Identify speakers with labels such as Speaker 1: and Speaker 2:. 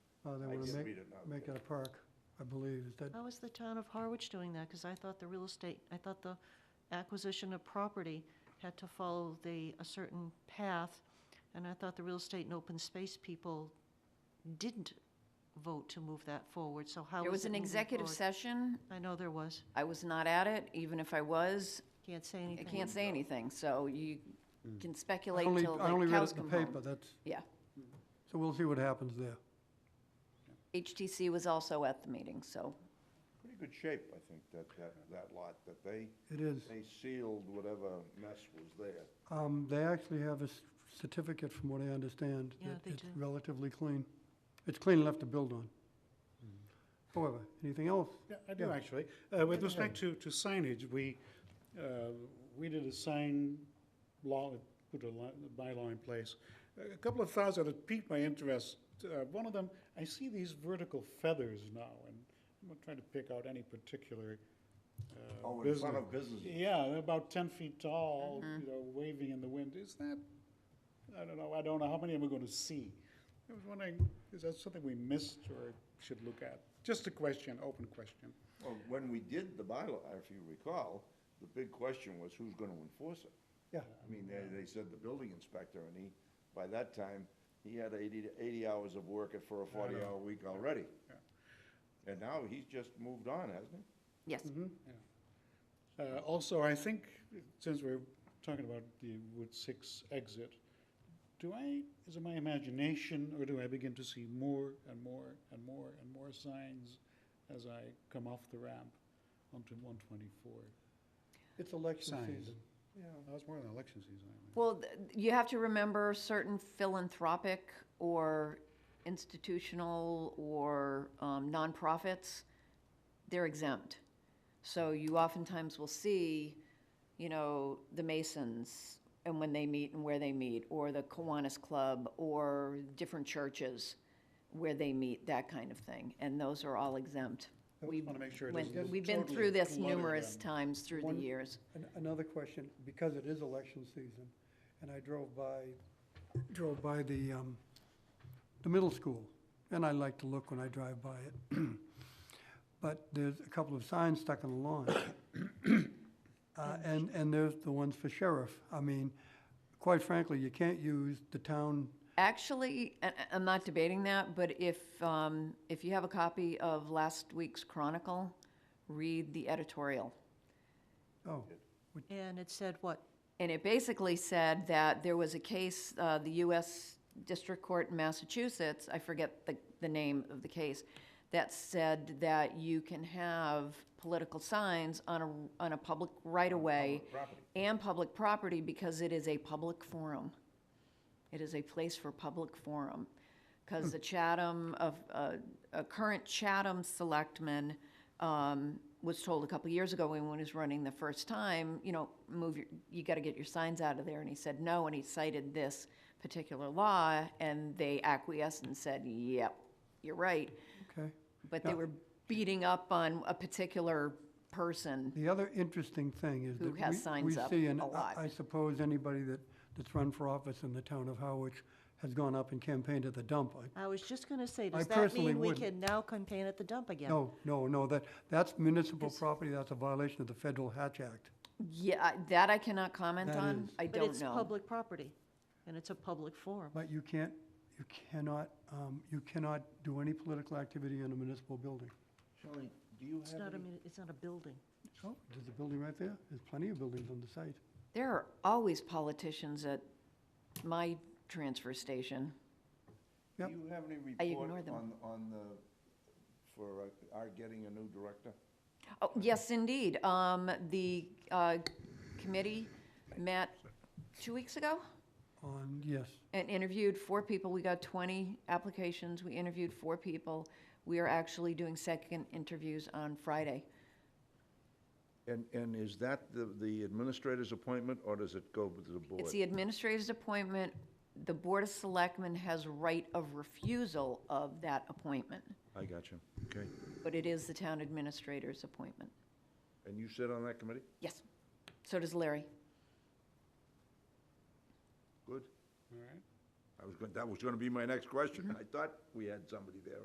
Speaker 1: Uh, They
Speaker 2: I
Speaker 1: want to
Speaker 2: did
Speaker 1: make,
Speaker 2: read it now.
Speaker 1: make it a park, I believe, is that,
Speaker 3: How is the town of Harwich doing that? Because I thought the real estate, I thought the acquisition of property had to follow the, a certain path, and I thought the real estate and open space people didn't vote to move that forward, so how is it
Speaker 4: There was an
Speaker 3: moving
Speaker 4: executive
Speaker 3: forward?
Speaker 4: session.
Speaker 3: I know there was.
Speaker 4: I was not at it, even if I was,
Speaker 3: Can't say
Speaker 4: I
Speaker 3: anything.
Speaker 4: can't say anything, so you can
Speaker 1: I
Speaker 4: speculate
Speaker 1: only,
Speaker 4: until
Speaker 1: I only
Speaker 4: the
Speaker 1: read
Speaker 4: cows
Speaker 1: it in
Speaker 4: come
Speaker 1: the paper,
Speaker 4: home.
Speaker 1: that's,
Speaker 4: Yeah.
Speaker 1: so we'll see what happens there.
Speaker 4: HTC was also at the meeting, so
Speaker 2: Pretty good shape, I think, that, that, that lot, that they,
Speaker 1: It is.
Speaker 2: they sealed whatever mess was there.
Speaker 1: Um, They actually have a s- certificate, from what I understand.
Speaker 3: Yeah,
Speaker 1: that
Speaker 3: they
Speaker 1: it's
Speaker 3: do.
Speaker 1: Relatively clean. It's clean enough to build on. However, anything else?
Speaker 5: Yeah, I do, actually. Uh, With respect to, to signage, we, uh, we did a sign law, put a li- bylaw in place. A- A couple of thoughts that piqued my interest. Uh, One of them, I see these vertical feathers now, and I'm not trying to pick out any particular uh,
Speaker 2: Oh, in
Speaker 5: business.
Speaker 2: front of businesses.
Speaker 5: Yeah, they're about ten feet tall, you know, waving in the wind. Is that, I don't know, I don't know, how many am I gonna see? I was wondering, is that something we missed or should look at? Just a question, open question.
Speaker 2: Well, when we did the bylaw, if you recall, the big question was who's gonna enforce it?
Speaker 1: Yeah.
Speaker 2: I mean, they, they said the building inspector, and he, by that time, he had 80 80 hours of work at- for a forty-hour week already. And now he's just moved on, hasn't he?
Speaker 4: yes.
Speaker 5: Uh, Also, I think, since we're talking about the Route 6 exit, do I, is it my imagination, or do I begin to see more and more and more and more signs as I come off the ramp onto 124?
Speaker 1: It's election
Speaker 5: Signs.
Speaker 1: season.
Speaker 5: Yeah, that's more than election season. I mean.
Speaker 4: Well, th- you have to remember certain philanthropic or institutional or um, nonprofits, they're exempt. So you oftentimes will see, you know, the Masons and when they meet and where they meet, or the Kiwanis Club, or different churches where they meet, that kind of thing. And those are all exempt.
Speaker 5: I
Speaker 4: We've-
Speaker 5: just want to make sure it
Speaker 4: when-
Speaker 5: doesn't
Speaker 4: We've been
Speaker 5: totally
Speaker 4: through this
Speaker 5: clutter
Speaker 4: numerous
Speaker 5: them.
Speaker 4: times through the
Speaker 1: One-
Speaker 4: years.
Speaker 1: An- Another question, because it is election season, and I drove by, drove by the, um, the middle school, and I like to look when I drive by it. But there's a couple of signs stuck on the lawn. Uh, and, and there's the ones for sheriff. I mean, quite frankly, you can't use the town,
Speaker 4: Actually, I- I- I'm not debating that, but if, um, if you have a copy of last week's Chronicle, read the editorial.
Speaker 1: oh,
Speaker 3: And it said what?
Speaker 4: And it basically said that there was a case, uh, the U.S. District Court in Massachusetts, I forget the, the name of the case, that said that you can have political signs on a, on a public right-of-way and public property because it is a public forum. It is a place for public forum.
Speaker 1: Hmm.
Speaker 4: Because the Chatham, of, uh, a current Chatham selectman um, was told a couple of years ago when he was running the first time, you know, move your, you got to get your signs out of there. And he said no, and he cited this particular law, and they acquiesced and said, yep, you're right.
Speaker 1: okay.
Speaker 4: But they were beating up on a particular person.
Speaker 1: The other interesting thing is that
Speaker 4: Who has
Speaker 1: we-
Speaker 4: signs
Speaker 1: we
Speaker 4: up
Speaker 1: see, and
Speaker 4: a
Speaker 1: I-
Speaker 4: lot.
Speaker 1: I suppose anybody that, that's run for office in the town of Harwich has gone up and campaigned at the dump. I-
Speaker 3: I was just gonna say,
Speaker 1: I
Speaker 3: does that
Speaker 1: personally
Speaker 3: mean we
Speaker 1: wouldn't.
Speaker 3: can now campaign at the dump again?
Speaker 1: No, no, no, that, that's municipal property, that's a violation of the Federal Hatch Act.
Speaker 4: Yeah, I- that I cannot comment
Speaker 1: That
Speaker 4: on.
Speaker 1: is-
Speaker 4: I
Speaker 3: But
Speaker 4: don't
Speaker 3: it's
Speaker 4: know.
Speaker 3: public property, and it's a public forum.
Speaker 1: But you can't, you cannot, um, you cannot do any political activity in a municipal building.
Speaker 2: Shelley, do you
Speaker 3: It's
Speaker 2: have
Speaker 3: not a,
Speaker 2: any?
Speaker 3: muni- it's not a building.
Speaker 1: Oh, there's a building right there, there's plenty of buildings on the site.
Speaker 4: There are always politicians at my transfer station.
Speaker 1: Yep.
Speaker 2: Do you have any
Speaker 4: I
Speaker 2: report
Speaker 4: ignore them.
Speaker 2: on, on the, for uh, our getting a new director?
Speaker 4: Oh, yes, indeed. Um, the, uh, committee met two weeks ago
Speaker 1: On, yes,
Speaker 4: and interviewed four people. We got twenty applications. We interviewed four people. We are actually doing second interviews on Friday.
Speaker 2: And, and is that the, the administrator's appointment, or does it go to the board?
Speaker 4: It's the administrator's appointment. The Board of Selectmen has right of refusal of that appointment,
Speaker 2: I got you. Okay.
Speaker 4: but it is the town administrator's appointment.
Speaker 2: And you sit on that committee?
Speaker 4: Yes. So does Larry.
Speaker 2: Good.
Speaker 5: All right.
Speaker 2: I was, going. that was gonna be my next question. I thought we had somebody there